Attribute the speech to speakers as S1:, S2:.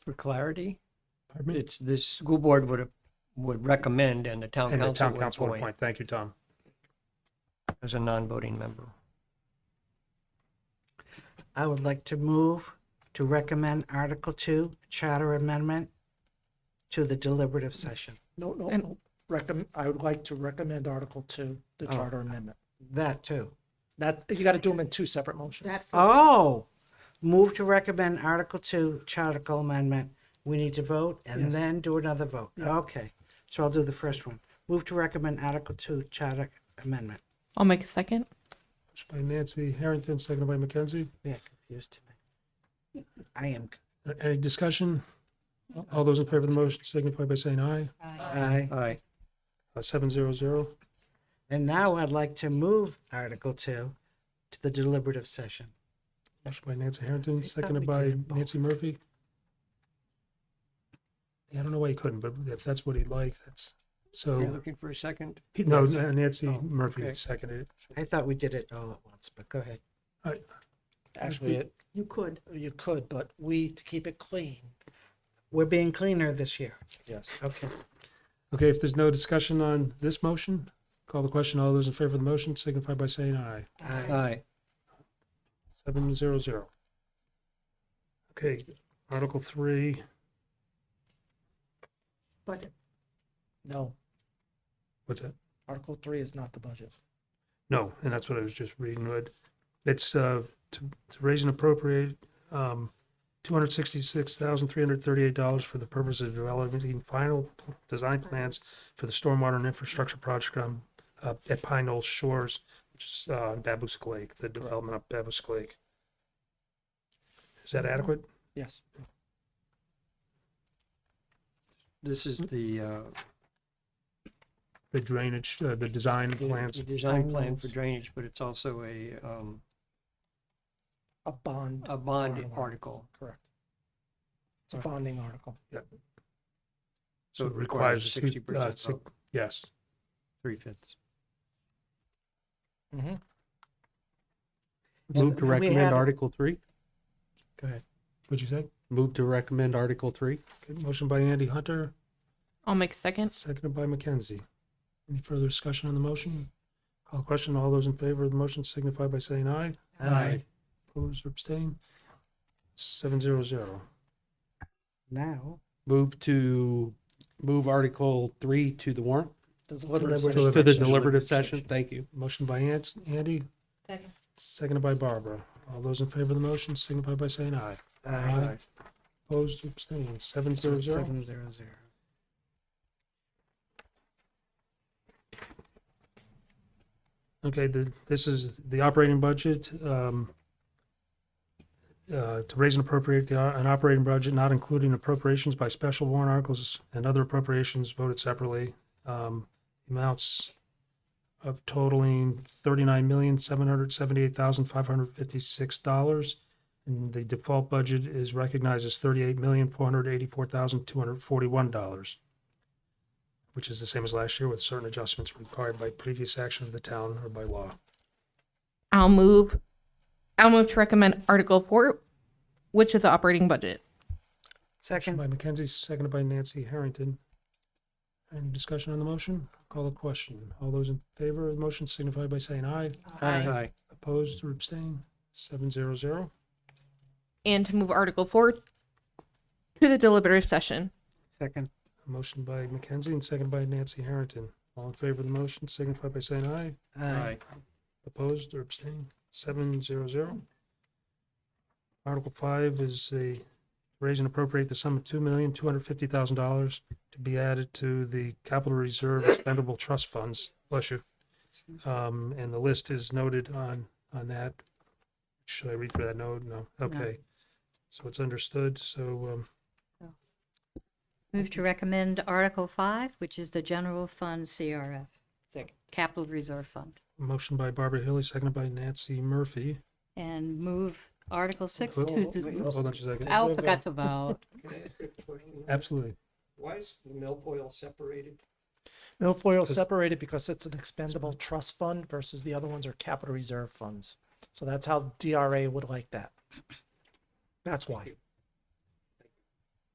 S1: for clarity?
S2: Pardon me?
S1: It's, the school board would, would recommend and the town
S2: And the
S1: council
S2: town
S1: would
S2: council would
S1: appoint
S2: appoint. Thank you, Tom.
S1: as a non-voting member.
S3: I would like to move to recommend Article Two Charter Amendment to the deliberative session.
S4: No, no,
S5: And-
S4: no. Recommend, I would like to recommend Article Two, the
S3: Oh.
S4: charter amendment.
S3: That too.
S4: That, you gotta do them in two separate motions.
S3: Oh, move to recommend Article Two Charter Amendment. We need to vote and
S4: Yes.
S3: then do another vote. Okay, so I'll do the first one. Move to recommend Article Two Charter Amendment.
S5: I'll make a second.
S2: Motion by Nancy Harrington, seconded by Mackenzie.
S3: Yeah, confused tonight. I am.
S2: A- Any discussion? All those in favor of the motion signify by saying aye.
S3: I.
S1: Aye.
S2: Uh, Seven zero zero.
S3: And now I'd like to move Article Two to the deliberative session.
S2: Motion by Nancy Harrington,
S3: I thought
S2: seconded
S3: we
S2: by
S3: did both.
S2: Nancy Murphy. Yeah, I don't know why he couldn't, but if that's what he liked, that's,
S1: So you're
S2: so,
S1: looking for a second?
S2: no, Nancy
S1: Oh,
S2: Murphy
S1: okay.
S2: seconded it.
S3: I thought we did it all at once, but go ahead.
S4: Actually, it-
S3: You could.
S4: you could, but we, to keep it clean,
S3: We're being cleaner this year.
S4: yes.
S3: Okay.
S2: Okay, if there's no discussion on this motion, call the question. All those in favor of the motion signify by saying aye.
S4: Uh,
S3: Aye.
S1: Aye.
S2: Seven zero zero. Okay, Article three,
S3: But
S4: No,
S2: what's that?
S4: Article Three is not the budget.
S2: No, and that's what I was just reading. Would it's uh, to, to raise and appropriate um, two hundred sixty-six thousand three hundred thirty-eight dollars for the purpose of developing final pl- design plans for the stormwater and infrastructure project on uh, at Pine Knoll Shores, which is uh, on Babusk Lake, the development of Babusk Lake. Is that adequate?
S4: Yes,
S1: This is the, uh,
S2: The drainage, uh, the design
S1: the
S2: plans.
S1: the design plan for drainage, but it's also a, um,
S4: a bond,
S1: a bond
S4: Article.
S1: article.
S4: correct. It's a bonding article.
S1: So it
S2: it
S1: requires
S2: a two-
S1: sixty
S2: uh,
S1: percent
S2: si- Yes.
S1: three fifths.
S4: Mhm.
S6: Move to
S3: Mm-hmm. And we had-
S6: recommend Article three?
S3: Go ahead.
S2: What'd you say?
S6: Move to recommend Article three?
S2: Okay, Motion by Andy Hunter.
S5: I'll make a second.
S2: Seconded by Mackenzie. Any further discussion on the motion? Call question. All those in favor of the motion signify by saying aye.
S3: Aye.
S2: Opposed or abstain? Seven zero zero.
S3: Now,
S6: Move to, move Article three to the warrant,
S4: The
S2: Deliberative
S6: to the
S2: session.
S6: deliberative session. Thank you.
S2: Motion by Ant- Andy,
S5: Second.
S2: seconded by Barbara. All those in favor of the motion signify by saying aye.
S3: uh,
S2: Opposed or abstained? Seven zero zero.
S3: seven zero zero.
S2: Okay, the, this is the operating budget. Um, uh, to raise and appropriate the, an operating budget not including appropriations by special warrant articles and other appropriations voted separately. Um, amounts of totaling thirty-nine million, seven hundred seventy-eight thousand, five hundred fifty-six dollars. And the default budget is recognized as thirty-eight million, four hundred eighty-four thousand, two hundred forty-one dollars, which is the same as last year with certain adjustments required by previous action of the town or by law.
S5: I'll move. I'll move to recommend Article Four, which is the operating budget.
S2: Motion
S3: Second,
S2: by Mackenzie, seconded by Nancy Harrington. Any discussion on the motion? Call the question. All those in favor of the motion signify by saying aye.
S3: Aye.
S2: Opposed or abstained? Seven zero zero.
S5: And to move Article Four to the deliberative session.
S3: second,
S2: Motion by Mackenzie and seconded by Nancy Harrington. All in favor of the motion signify by saying aye.
S3: aye.
S2: Opposed or abstained? Seven zero zero. Article five is a raise and appropriate the sum of two million, two hundred fifty thousand dollars to be added to the capital reserve expendable trust funds. Bless you. Um, and the list is noted on, on that. Should I read through that note? No. Okay. So it's understood. So, um,
S7: Move to recommend Article 5, which is the General Fund CRF,
S3: Second.
S7: Capital Reserve Fund,
S2: motion by Barbara Hilly, seconded by Nancy Murphy.
S7: and move Article 6 to
S2: Hold-
S7: the,
S2: Hold on just a second.
S7: I forgot to vote.
S2: Absolutely.
S1: Why is the milfoil separated?
S4: Milfoil separated because it's an expendable trust fund versus the other ones are capital reserve funds. So that's how DRA would like that. That's why.